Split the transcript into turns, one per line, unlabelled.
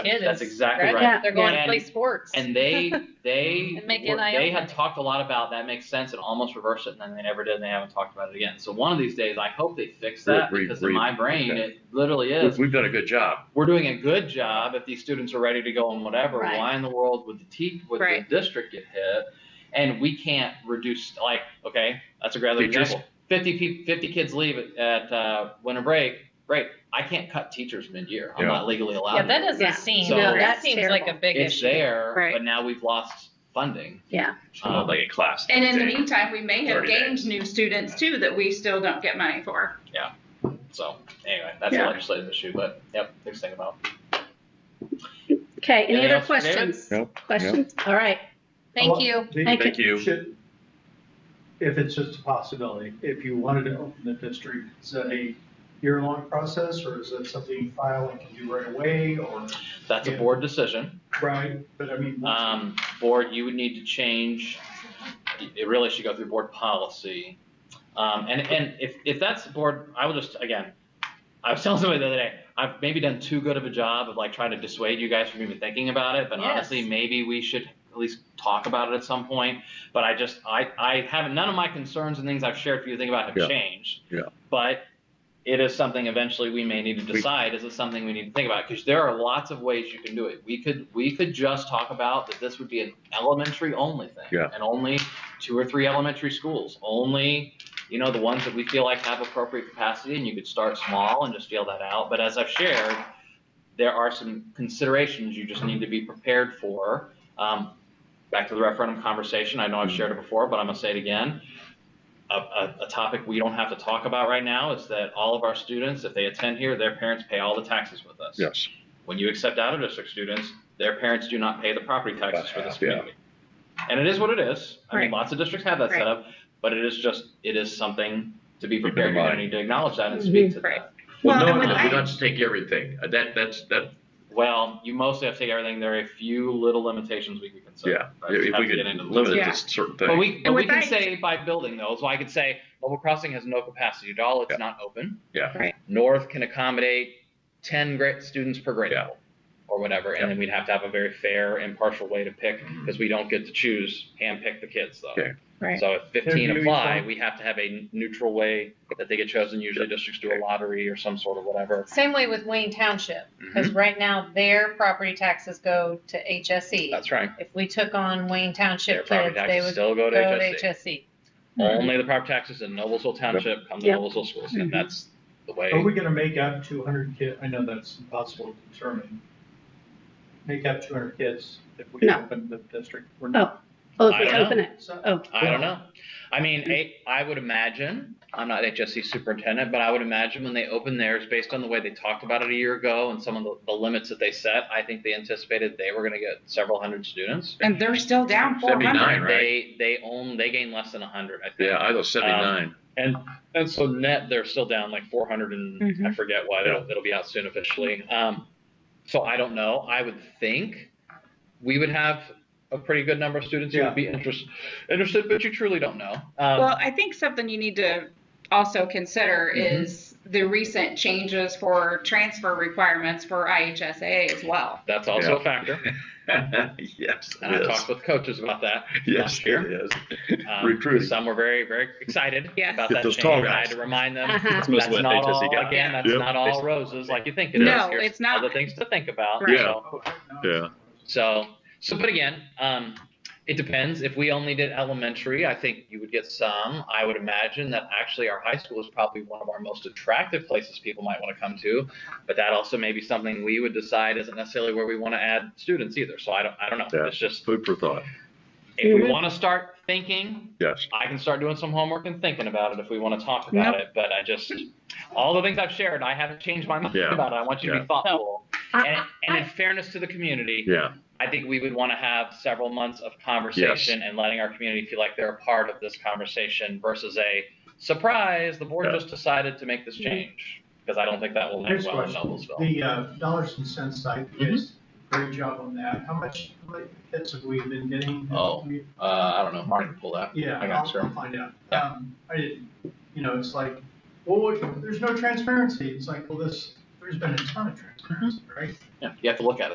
kid
That's
is-
exactly right.
Yeah.
They're going
And-
to play sports.
And they they
And make
were-
NIL
they had
money.
talked a lot about that makes sense and almost reversed it and then they never did and they haven't talked about it again. So one of these days I hope they fix
Re-
that
re-
because
re-
in my brain
okay.
it literally
We've-
is.
We've done a good job.
We're doing a good job if these students are ready to go and whatever.
Right.
Why in the world would the te- would
Right.
the district get hit? And we can't reduce like okay that's a great other
Teachers?
example. 50, pe- 50 kids leave at, at uh, winter break. Right, I can't cut teachers mid-year. I'm
Yeah.
not legally allowed.
yeah,
to
that
do
doesn't
Yeah.
seem.
So- No,
that
that's
seems
terrible.
like a big
it's
issue.
there,
Right.
but now we've lost funding. Um,
Yeah.
Not uh, like a class.
And in the
Okay.
meantime, we may have
30
gained
days.
new students too that we still don't get money for.
So anyway, that's a
Yeah.
legislative issue, but yep, there's thing about.
Okay, any
Anything
other
else for David?
questions?
Nope,
Questions? All right,
Well,
thank you.
the-
Thank you.
Thank you.
Should, if it's just a possibility, if you wanted to open the district, is that a year-long process, or is that something you file and can do right away, or,
That's a
Yeah.
board decision.
right, but I mean.
Um, board, you would need to change, it really should go through board policy. Um, and, and if, if that's the board, I will just, again, I was telling somebody the other day, I've maybe done too good of a job of like trying to dissuade you guys from even thinking about it, but
Yes.
honestly, maybe we should at least talk about it at some point. But I just, I, I haven't, none of my concerns and things I've shared for you to think about have
Yeah.
changed.
Yeah.
But it is something eventually we may need to decide. Is it something we need to think about? Because there are lots of ways you can do it. We could, we could just talk about that this would be an elementary only thing.
Yeah.
And only two or three elementary schools, only, you know, the ones that we feel like have appropriate capacity and you could start small and just feel that out. But as I've shared, there are some considerations you just need to be prepared for. Um, back to the referendum conversation, I know I've shared it before, but I'm gonna say it again. A, a, a topic we don't have to talk about right now is that all of our students, if they attend here, their parents pay all the taxes with us.
Yes.
When you accept out of district students, their parents do not pay the property taxes for this
Yeah.
community. And it is what it is. I mean,
Right.
lots of districts have that
Right.
set up, but it is just, it is something to be
Keep in
prepared. You're gonna
mind.
need to acknowledge that and speak to
Mm-hmm. Right.
that.
Well,
Well,
no,
and
no,
when
we
I-
don't have to take everything. Uh, That, that's, that,
Well, you mostly have to take everything. There are a few little limitations we could consider.
yeah.
but
If
have
uh, we
to get into
could
the
limit it
Yeah.
to certain
But
things.
we, but we
with
can
that-
say by building though, so I could say Level Crossing has no capacity at all, it's
Yeah.
not open.
Yeah.
Right.
North can accommodate ten grade students per grade
Yeah.
level, or whatever, and then we'd have to have a very fair, impartial way to pick, because we don't get to choose, handpick the kids though.
Okay.
Right.
So if
They're
fifteen
doing
apply,
some-
we have to have a neutral way that they get chosen, usually districts do a lottery or some sort of whatever.
Same way with Wayne Township, because
Mm-hmm.
right now their property taxes go to HSE.
That's right,
If we took on
their
Wayne Township
property
kids, they
taxes
would
still go to E.
go to E.
HSC.
HSE.
Only the property taxes in Noblesville Township come to
Yep.
Noblesville schools, and
Mhm.
that's the
Are
way.
we gonna make up two hundred kid, I know that's impossible to determine. Make up two hundred kids if we
No.
open the district? We're
Oh.
not.
Oh,
if we I don't open
it.
So-
Oh.
I don't know. I mean, a- I would imagine, I'm not HSC superintendent, but I would imagine when they opened theirs, based on the way they talked about it a year ago and some of the, the limits that they set, I think they anticipated they were gonna get several hundred students.
And they're still down four hundred.
79, right?
They, they own, they gained less than a hundred, I think.
Yeah, I was seventy-nine.
And and so net, they're still down like 400 and I forget what. It'll, it'll be out soon officially. Um, so I don't know. I would think we would have a pretty good number of students who
Yeah.
would be interest, interested, but you truly don't know. Um,
Well, I think something you need to also consider
Mm-hmm.
Mhm.
is the recent changes for transfer requirements for IHSA as well.
that's also
Yeah.
a factor.
Yes,
And I
it
talked
is.
with coaches about that.
Yes,
last year.
it is.
Um,
Recruiting.
Some were very, very excited
Yes.
about
Get
that
those
change.
tall
I
guys.
had to remind them
Uh-huh.
That's
that's,
mostly what
not
HSC
all,
got.
again, that's
Yep.
not all roses like you think it is.
No,
There's
it's not.
Other things to think about.
Right.
Yeah.
So,
Oh, no.
Yeah.
So, so, but again, um, it depends. If we only did elementary, I think you would get some. I would imagine that actually our high school is probably one of our most attractive places people might want to come to, but that also may be something we would decide isn't necessarily where we want to add students either. So I don't, I don't know.
Yeah.
It's just
Food for thought.
if
Mm-hmm.
we want to start thinking,
Yes.
I can start doing some homework and thinking about it if we want to talk about it. But I just all the things I've shared, I haven't changed my mind
Yeah.
about it. I want you to
Yeah.
be thoughtful.
I-
And, and in fairness to the community,
Yeah.
I think we would want to have several months of conversation and letting our community feel like they're a part of this conversation versus a surprise, the board
Yeah.
just decided to make this change. Because I don't think that will end
Next
well in
question.
Noblesville.
The uh, dollars and cents side,
Mm-hmm.
yes, great job on that. How much how many hits have we been getting?
Oh. Uh, I don't know. Mark can pull that.
Yeah,
I got
I'll
sure.
find out.
Yeah.
Um, I didn't, you know, it's like, well,
Mm-hmm.
what- there's no transparency. It's like, well, this, there's been a ton of transparency, right?
Yeah, you have to look at it.